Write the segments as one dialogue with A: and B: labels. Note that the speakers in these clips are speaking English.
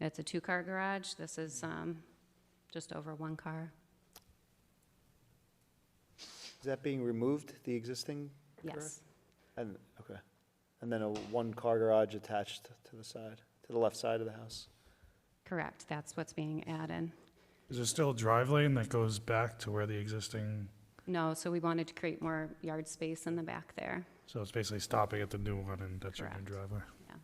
A: It's a two-car garage. This is
B: Mm-hmm.
A: um, just over one car.
C: Is that being removed, the existing? garage?
A: Yes,
C: And, okay. And then a one-car garage attached to the side, to the left side of the house?
A: correct. That's what's being added.
D: Is there still a drive lane that goes back to where the existing,
A: No, so we wanted to create more yard space in the back there.
D: so it's basically stopping at the new one and that's your new
A: Correct.
D: driveway?
A: Yeah.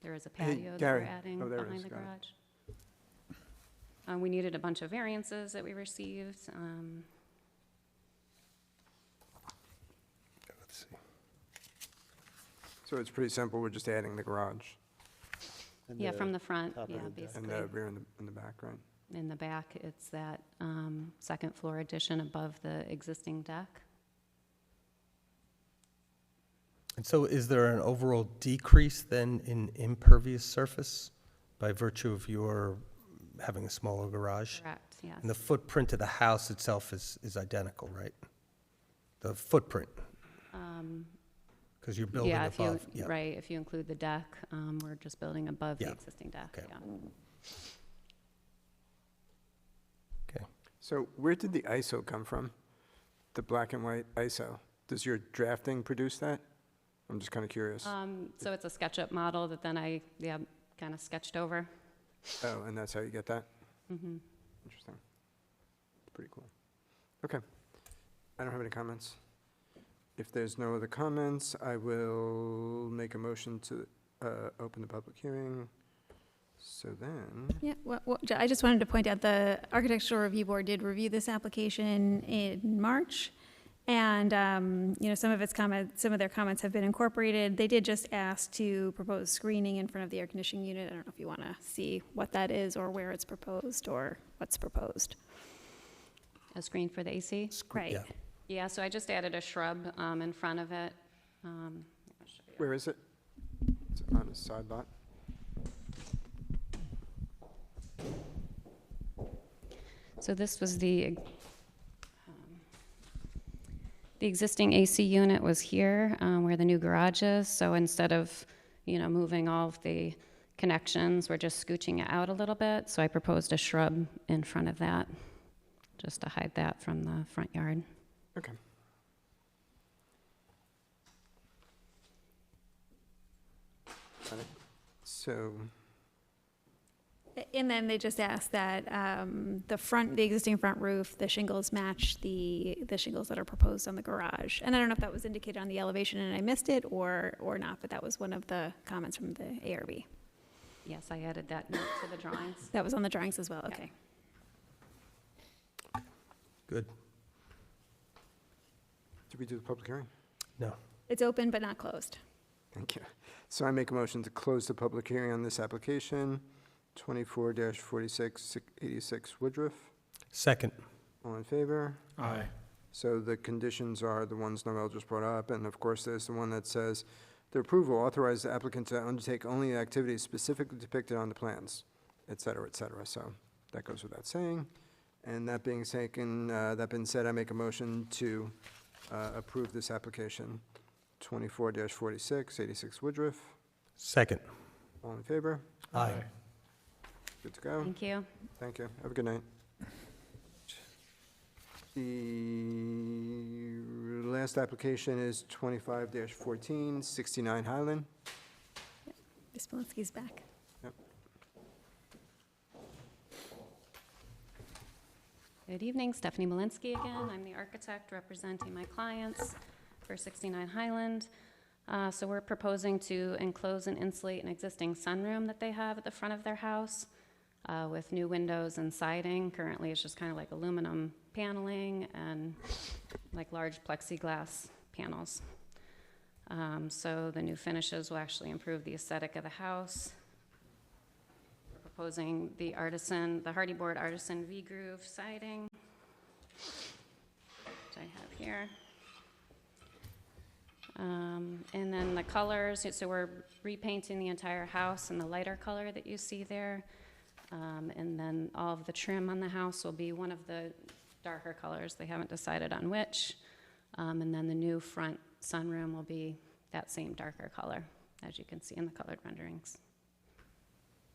A: There is a
B: Hey,
A: patio that we're
B: Gary.
A: adding
B: Oh, there it
A: behind
B: is,
A: the
B: got it.
A: garage. Uh, We needed a bunch of variances that we received. um,
B: So it's pretty simple, we're just adding the garage
C: and
A: Yeah, from the front,
C: top of
A: yeah,
C: the deck.
B: and the
A: basically.
B: rear and the, and the back, right?
A: In the back, it's that um, second floor addition above the existing deck.
E: And so is there an overall decrease then in impervious surface by virtue of your having a smaller garage?
A: Correct, yes.
E: And the footprint of the house itself is, is identical, right? The footprint,
A: Um,
E: because you're building
A: Yeah, if you,
E: above. yeah.
A: right, if you include the deck, um, we're just building above the
E: Yeah,
A: existing deck,
E: okay.
A: yeah.
E: Okay.
B: So where did the ISO come from? The black and white ISO? Does your drafting produce that? I'm just kind of curious.
A: Um, So it's a SketchUp model that then I, yeah, kind of sketched over.
B: Oh, and that's how you get that?
A: Mhm.
B: Interesting. Pretty cool. Okay. I don't have any comments. If there's no other comments, I will make a motion to uh, open the public hearing. So then,
F: Yeah, well, well, ju- I just wanted to point out, the Architectural Review Board did review this application in March, and, um, you know, some of its comments, some of their comments have been incorporated. They did just ask to propose screening in front of the air conditioning unit. I don't know if you want to see what that is, or where it's proposed, or what's proposed.
A: A screen for the AC?
E: Scre-
F: Right.
E: yeah.
A: Yeah, so I just added a shrub um, in front of it. Um, I'll show you.
B: where is it? It's on a side lot.
A: So this was the, um, the existing AC unit was here um, where the new garage is. So instead of, you know, moving all of the connections, we're just scooching it out a little bit. So I proposed a shrub in front of that, just to hide that from the front yard.
B: Okay. Got it. So,
F: A- And then they just asked that um, the front, the existing front roof, the shingles match the, the shingles that are proposed on the garage. And I don't know if that was indicated on the elevation and I missed it or, or not, but that was one of the comments from the ARB.
A: Yes, I added that note to the drawings.
F: That was on the drawings as well, okay.
E: Good.
B: did we do the public hearing?
E: No.
F: It's open but not closed.
B: Thank you. So I make a motion to close the public hearing on this application, 24-4686 Woodruff.
E: Second.
B: All in favor?
D: Aye.
B: So the conditions are the ones Noel just brought up, and of course, there's the one that says, "The approval authorizes the applicant to undertake only activities specifically depicted on the plans," et cetera, et cetera. So that goes without saying. And that being taken, uh, that being said, I make a motion to uh, approve this application, 24-46, 86 Woodruff.
E: Second.
B: All in favor?
E: Aye.
B: Good to go.
A: Thank you.
B: Thank you. Have a good night. The last application is 25-14, 69 Highland.
F: Ms. Malinsky's back.
A: Good evening, Stephanie Malinsky again. I'm the architect representing my clients for 69 Highland. Uh, So we're proposing to enclose and insulate an existing sunroom that they have at the front of their house uh, with new windows and siding. Currently, it's just kind of like aluminum paneling and like large plexiglass panels. Um, So the new finishes will actually improve the aesthetic of the house proposing the artisan, the hardy board artisan V-groove siding, which I have here. Um, And then the colors, so we're repainting the entire house in the lighter color that you see there. Um, And then all of the trim on the house will be one of the darker colors, they haven't decided on which. Um, And then the new front sunroom will be that same darker color, as you can see in the colored renderings.